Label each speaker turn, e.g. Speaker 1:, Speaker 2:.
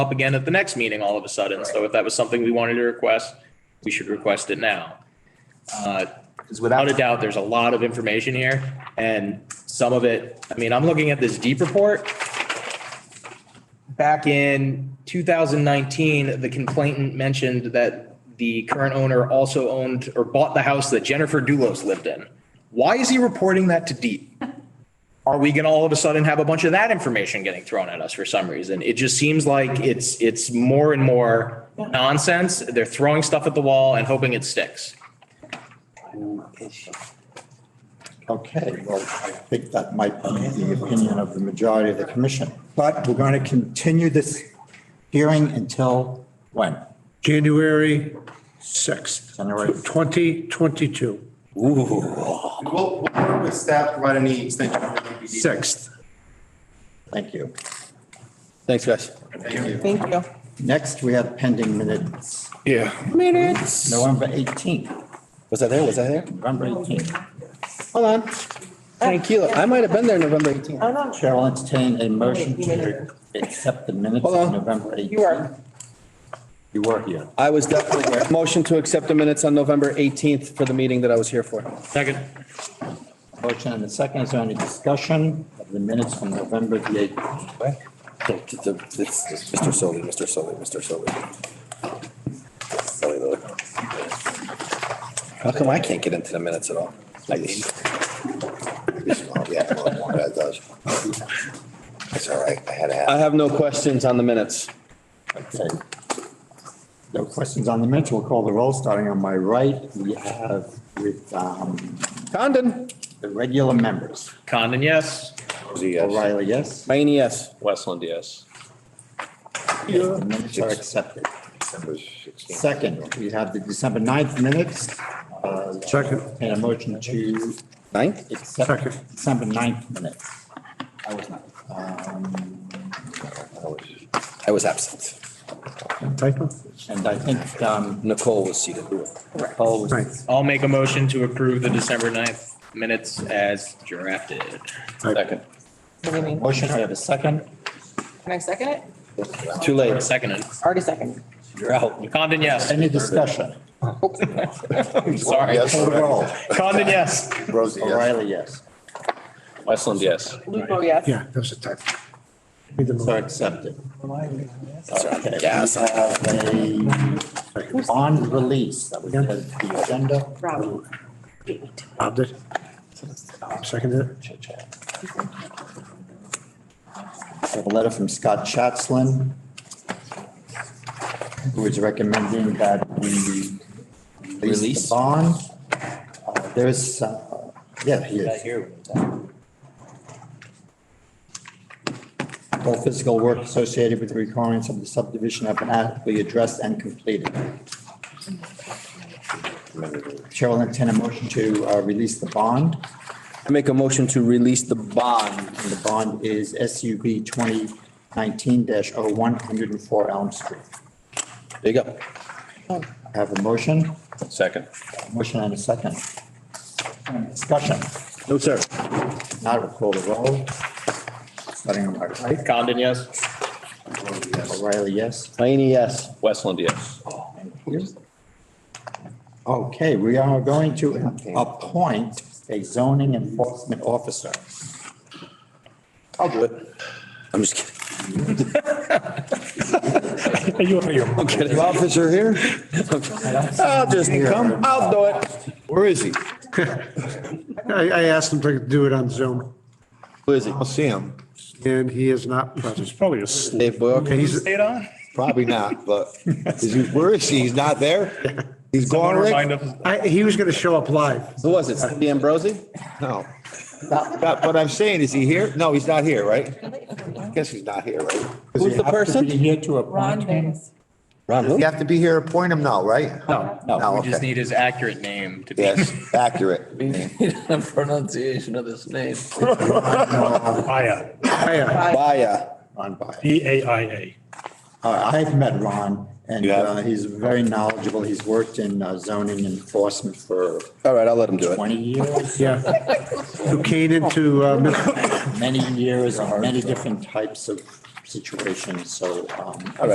Speaker 1: up again at the next meeting all of a sudden. So if that was something we wanted to request, we should request it now. Uh,
Speaker 2: Because
Speaker 1: Without
Speaker 2: without,
Speaker 1: a doubt, there's a lot of information here and some of it, I mean, I'm looking at this deep report. Back in 2019, the complainant mentioned that the current owner also owned or bought the house that Jennifer Dulos lived in. Why is he reporting that to deep? Are we going to all of a sudden have a bunch of that information getting thrown at us for some reason? It just seems like it's, it's more and more nonsense. They're throwing stuff at the wall and hoping it sticks.
Speaker 3: Okay, well, I think that might be the opinion of the majority of the commission. But we're going to continue this hearing until when?
Speaker 4: January 6th,
Speaker 3: January.
Speaker 4: 2022,
Speaker 5: We'll, we'll work with staff, to provide any extension. that might be needed.
Speaker 4: 6th.
Speaker 3: Thank you.
Speaker 6: Thanks, guys.
Speaker 5: Thank you.
Speaker 7: Thank you.
Speaker 3: Next, we have pending minutes,
Speaker 7: Minutes.
Speaker 3: November 18th,
Speaker 6: Was I there? Was I there?
Speaker 3: November 18th.
Speaker 6: Hold on. Thank you. I might have been there November 18th.
Speaker 7: I'm not sure.
Speaker 3: Chair will entertain a motion to accept the minutes
Speaker 6: Hold
Speaker 3: of
Speaker 6: on.
Speaker 3: November 18th.
Speaker 7: You are.
Speaker 3: You were here.
Speaker 6: I was definitely there. Motion to accept the minutes on November 18th for the meeting that I was here for.
Speaker 1: Second.
Speaker 3: Motion and a second. Is there any discussion of the minutes from November the 18th?
Speaker 6: Mr. Solly, Mr. Solly, Mr. Solly. How come I can't get into the minutes at all? I mean.
Speaker 8: Yeah, well, that does. That's all right. I had to
Speaker 6: I
Speaker 8: have.
Speaker 6: have no questions on the minutes.
Speaker 3: Okay. No questions on the minutes. We'll call the roll. Starting on my right, we have with um,
Speaker 6: Condon?
Speaker 3: the regular members.
Speaker 1: Condon, yes.
Speaker 3: O'Reilly, yes.
Speaker 6: Mayne, yes.
Speaker 9: Westland, yes.
Speaker 3: Yes, The minutes are accepted.
Speaker 8: December 16th.
Speaker 3: Second, we have the December 9th minutes. Uh,
Speaker 4: Second.
Speaker 3: And a motion to
Speaker 6: Ninth?
Speaker 3: accept
Speaker 4: Second.
Speaker 3: December 9th minutes. I was not. Um,
Speaker 6: I was absent.
Speaker 4: Typo?
Speaker 3: And I think um,
Speaker 6: Nicole was seated.
Speaker 3: Paul was
Speaker 4: Right.
Speaker 1: I'll make a motion to approve the December 9th minutes as drafted.
Speaker 9: Second.
Speaker 7: What do you mean?
Speaker 3: motion. I have a second.
Speaker 7: Can I second it?
Speaker 6: Too late.
Speaker 1: Seconded.
Speaker 7: Already seconded.
Speaker 3: You're out.
Speaker 1: Condon, yes.
Speaker 3: Any discussion?
Speaker 1: Sorry.
Speaker 8: Yes,
Speaker 3: Call the roll.
Speaker 1: Condon, yes.
Speaker 8: Rosie, yes.
Speaker 3: O'Reilly, yes.
Speaker 9: Westland, yes.
Speaker 7: Lupo, yes.
Speaker 4: Yeah, that was a typo. Read them all.
Speaker 3: So accepted. Okay, we have a bond release that was added to the agenda.
Speaker 7: Rob.
Speaker 4: Bob did. Seconded it.
Speaker 3: We have A letter from Scott Chatslin, who is recommending that we release
Speaker 6: Release?
Speaker 3: the bond. Uh, There is, uh, yeah, he is. All physical work associated with the requirements of the subdivision have been adequately addressed and completed. Chair will entertain a motion to uh, release the bond. Um,
Speaker 6: I make a motion to release the bond.
Speaker 3: And the bond is SUB 2019-01, 104 Elm Street.
Speaker 6: There you go.
Speaker 3: I Have a motion,
Speaker 9: Second.
Speaker 3: motion and a second. Discussion,
Speaker 6: No, sir.
Speaker 3: now we'll call the roll. Starting on my right,
Speaker 1: Condon, yes.
Speaker 3: O'Reilly, yes.
Speaker 6: Mayne, yes.
Speaker 9: Westland, yes.
Speaker 3: And here's- Okay, we are going to appoint a zoning enforcement officer.
Speaker 6: I'll do it. I'm just kidding.
Speaker 4: Are you out of your mind?
Speaker 6: The officer here? I'll just come, I'll do it. Where is he?
Speaker 4: I, I asked him to do it on Zoom
Speaker 6: Where is he?
Speaker 8: I'll see him.
Speaker 4: and he is not present.
Speaker 10: Probably asleep.
Speaker 6: Dave Boyle.
Speaker 4: And he's,
Speaker 1: Stayed on?
Speaker 8: Probably not, but is he, where is he? He's not there? He's gone,
Speaker 10: Remind
Speaker 8: Rick?
Speaker 10: him.
Speaker 4: I, he was gonna show up live.
Speaker 6: Who was it? Cindy Ambrosi?
Speaker 8: No. But what I'm saying, is he here? No, he's not here, right? I guess he's not here, right?
Speaker 3: Does he
Speaker 6: Who's the
Speaker 3: have to
Speaker 6: person?
Speaker 3: be here to
Speaker 7: Ron
Speaker 3: appoint him?
Speaker 7: Davis.
Speaker 6: Ron who?
Speaker 8: You have to be here, appoint him now, right?
Speaker 1: No.
Speaker 8: No,
Speaker 1: We just
Speaker 8: okay.
Speaker 1: need his accurate name to be.
Speaker 8: Yes, accurate.
Speaker 11: The pronunciation of this name.
Speaker 10: Aya,
Speaker 4: Hiya.
Speaker 6: Baya.
Speaker 3: Ron Byers.
Speaker 10: B A I A.
Speaker 3: Uh, I've met Ron, and
Speaker 8: You have?
Speaker 3: uh, he's very knowledgeable. He's worked in uh, zoning enforcement for
Speaker 6: All right, I'll let him do it.
Speaker 3: 20 years,
Speaker 4: Yeah. Who came into, uh, Mid-
Speaker 3: many years, on many different types of situations, so. um,